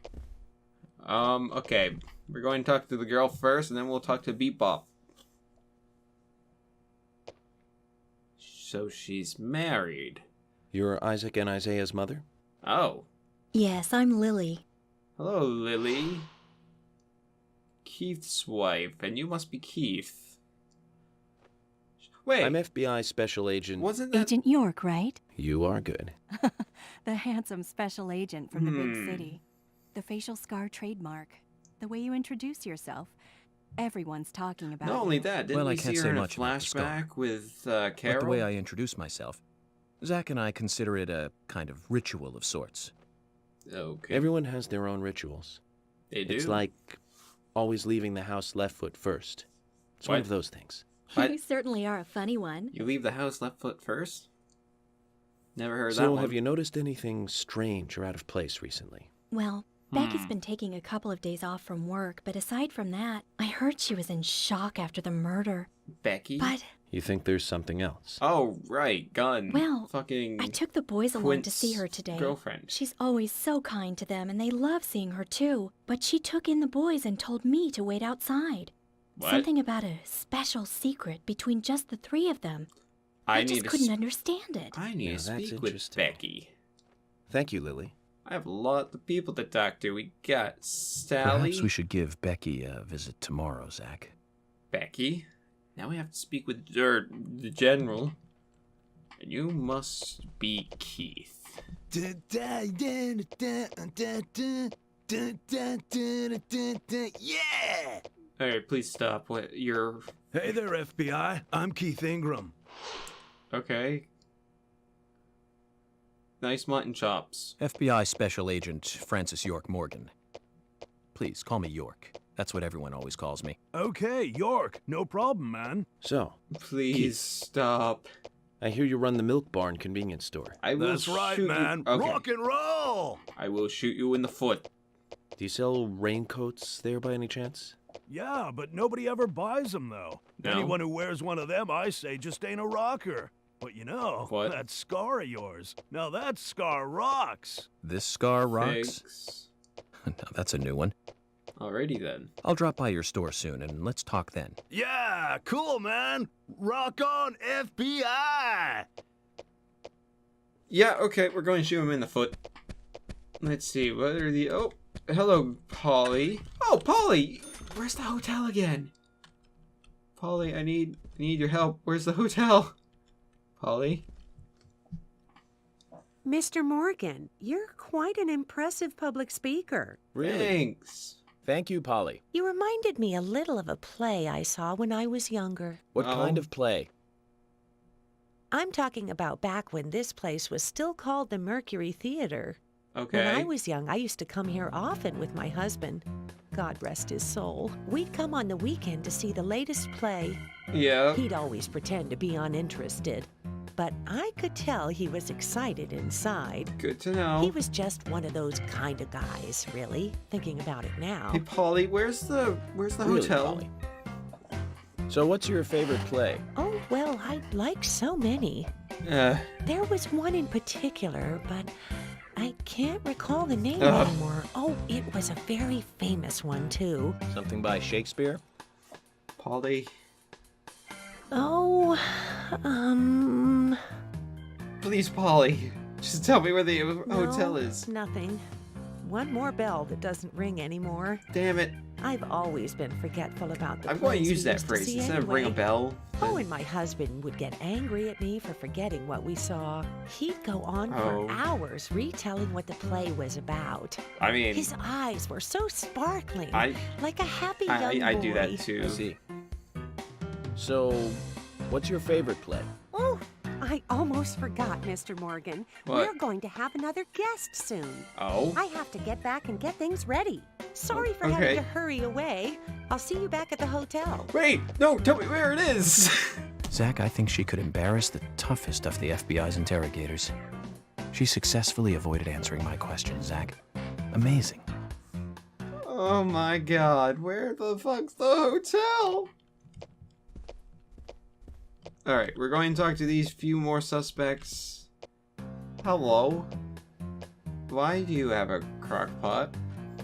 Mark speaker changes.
Speaker 1: Um, okay. We're going to talk to the girl first, and then we'll talk to Bebop. So she's married.
Speaker 2: You're Isaac and Isaiah's mother?
Speaker 1: Oh.
Speaker 3: Yes, I'm Lily.
Speaker 1: Hello, Lily. Keith's wife, and you must be Keith. Wait,
Speaker 2: I'm FBI Special Agent.
Speaker 1: wasn't that
Speaker 3: Uh, Agent York, right?
Speaker 2: You are good.
Speaker 3: the handsome special agent from the
Speaker 1: Hmm.
Speaker 3: big city. The facial scar trademark. The way you introduce yourself. Everyone's talking about
Speaker 1: Not only
Speaker 3: you.
Speaker 1: that, didn't
Speaker 4: Well, I
Speaker 1: we
Speaker 4: can't
Speaker 1: see
Speaker 4: say
Speaker 1: her in a
Speaker 4: much about the scar.
Speaker 1: flashback with uh, Carol?
Speaker 4: But the way I introduce myself, Zach and I consider it a kind of ritual of sorts.
Speaker 1: Okay,
Speaker 2: Everyone has their own rituals.
Speaker 1: they do.
Speaker 2: It's like always leaving the house left foot first. It's one
Speaker 1: What?
Speaker 2: of those things.
Speaker 1: But-
Speaker 3: You certainly are a funny one.
Speaker 1: you leave the house left foot first. Never heard that
Speaker 2: so,
Speaker 1: one.
Speaker 2: have you noticed anything strange or out of place recently?
Speaker 3: Well, Becky's
Speaker 1: Hmm.
Speaker 3: been taking a couple of days off from work, but aside from that, I heard she was in shock after the murder.
Speaker 1: Becky?
Speaker 3: But
Speaker 2: You think there's something else?
Speaker 1: Oh right, gun.
Speaker 3: Well,
Speaker 1: fucking.
Speaker 3: I took the boys along to see
Speaker 1: Quint's
Speaker 3: her today.
Speaker 1: girlfriend.
Speaker 3: She's always so kind to them, and they love seeing her too. But she took in the boys and told me to wait outside.
Speaker 1: What?
Speaker 3: Something about a special secret between just the three of them.
Speaker 1: I,
Speaker 3: just
Speaker 1: need to
Speaker 3: couldn't
Speaker 1: s-
Speaker 3: understand it.
Speaker 1: I need
Speaker 2: Yeah,
Speaker 1: to
Speaker 2: that's
Speaker 1: speak with
Speaker 2: interesting.
Speaker 1: Becky.
Speaker 2: Thank you, Lily.
Speaker 1: I have a lot of people to talk to. We got Sally,
Speaker 4: Perhaps we should give Becky a visit tomorrow, Zach.
Speaker 1: Becky. Now we have to speak with er, the general. And you must be Keith.
Speaker 5: Yeah!
Speaker 1: All right, please stop. What you're
Speaker 5: Hey there, FBI. I'm Keith Ingram.
Speaker 1: okay? Nice mutton chops.
Speaker 4: FBI Special Agent Francis York Morgan. Please call me York. That's what everyone always calls me.
Speaker 5: Okay, York. No problem, man.
Speaker 2: So,
Speaker 1: Please
Speaker 2: Keith.
Speaker 1: stop.
Speaker 2: I hear you run the milk barn convenience store.
Speaker 1: I will
Speaker 5: That's right,
Speaker 1: shoot
Speaker 5: man.
Speaker 1: You. Okay.
Speaker 5: Rock and roll!
Speaker 1: I will shoot you in the foot.
Speaker 2: Do you sell raincoats there by any chance?
Speaker 5: Yeah, but nobody ever buys them, though.
Speaker 1: No.
Speaker 5: Anyone who wears one of them, I say, just ain't a rocker. But you know,
Speaker 1: What?
Speaker 5: that scar of yours. Now that scar rocks.
Speaker 4: This scar rocks?
Speaker 1: Thanks.
Speaker 4: no, that's a new one.
Speaker 1: Alrighty then.
Speaker 4: I'll drop by your store soon and let's talk then.
Speaker 5: Yeah, cool, man. Rock on, FBI!
Speaker 1: Yeah, okay, we're going to shoot him in the foot. Let's see, what are the oh hello Polly. Oh Polly! Where's the hotel again? Polly, I need I need your help. Where's the hotel? Polly?
Speaker 6: Mr. Morgan, you're quite an impressive public speaker.
Speaker 1: Thanks.
Speaker 2: Thank you, Polly.
Speaker 6: You reminded me a little of a play I saw when I was younger.
Speaker 2: What
Speaker 4: Um,
Speaker 1: Oh.
Speaker 2: kind of play?
Speaker 6: I'm talking about back when this place was still called the Mercury Theater.
Speaker 1: Okay.
Speaker 6: When I was young, I used to come here often with my husband. God rest his soul. We'd come on the weekend to see the latest play.
Speaker 1: yeah.
Speaker 6: He'd always pretend to be uninterested, but I could tell he was excited inside.
Speaker 1: Good to know.
Speaker 6: He was just one of those kind of guys, really, thinking about it now.
Speaker 1: Hey Polly, where's the where's the
Speaker 2: Really,
Speaker 1: hotel?
Speaker 2: Polly. So, what's your favorite play?
Speaker 6: Oh, well, I like so many.
Speaker 1: Uh,
Speaker 6: There was one in particular, but I can't recall the name
Speaker 1: Ugh.
Speaker 6: anymore. Oh, it was a very famous one, too.
Speaker 2: Something by Shakespeare?
Speaker 1: Polly,
Speaker 6: Oh, um.
Speaker 1: please, Polly, just tell me where the hotel
Speaker 6: no,
Speaker 1: is.
Speaker 6: Nothing. One more bell that doesn't ring anymore.
Speaker 1: Damn it!
Speaker 6: I've always been forgetful about the
Speaker 1: I'm going
Speaker 6: plays
Speaker 1: to use
Speaker 6: we
Speaker 1: that
Speaker 6: used
Speaker 1: phrase
Speaker 6: see
Speaker 1: instead of ring a
Speaker 6: anyway.
Speaker 1: bell.
Speaker 6: Oh, and my husband would get angry at me for forgetting what we saw. He'd go on
Speaker 1: Oh.
Speaker 6: for hours retelling what the play was about.
Speaker 1: I mean,
Speaker 6: His eyes were so sparkling,
Speaker 1: I
Speaker 6: like a happy young
Speaker 1: I,
Speaker 6: boy.
Speaker 1: I, I do that too.
Speaker 2: I see. So, what's your favorite play?
Speaker 7: Oh, I almost forgot, Mr. Morgan.
Speaker 1: What?
Speaker 7: We're going to have another guest soon.
Speaker 1: Oh,
Speaker 7: I have to get back and get things ready.
Speaker 6: Sorry for
Speaker 1: Okay.
Speaker 6: having to hurry away. I'll see you back at the hotel.
Speaker 1: wait, no, tell me where it is.
Speaker 4: Zach, I think she could embarrass the toughest of the FBI's interrogators. She successfully avoided answering my question, Zach. Amazing.
Speaker 1: oh my God, where the fuck's the hotel? All right, we're going to talk to these few more suspects. Hello. Why do you have a crock pot?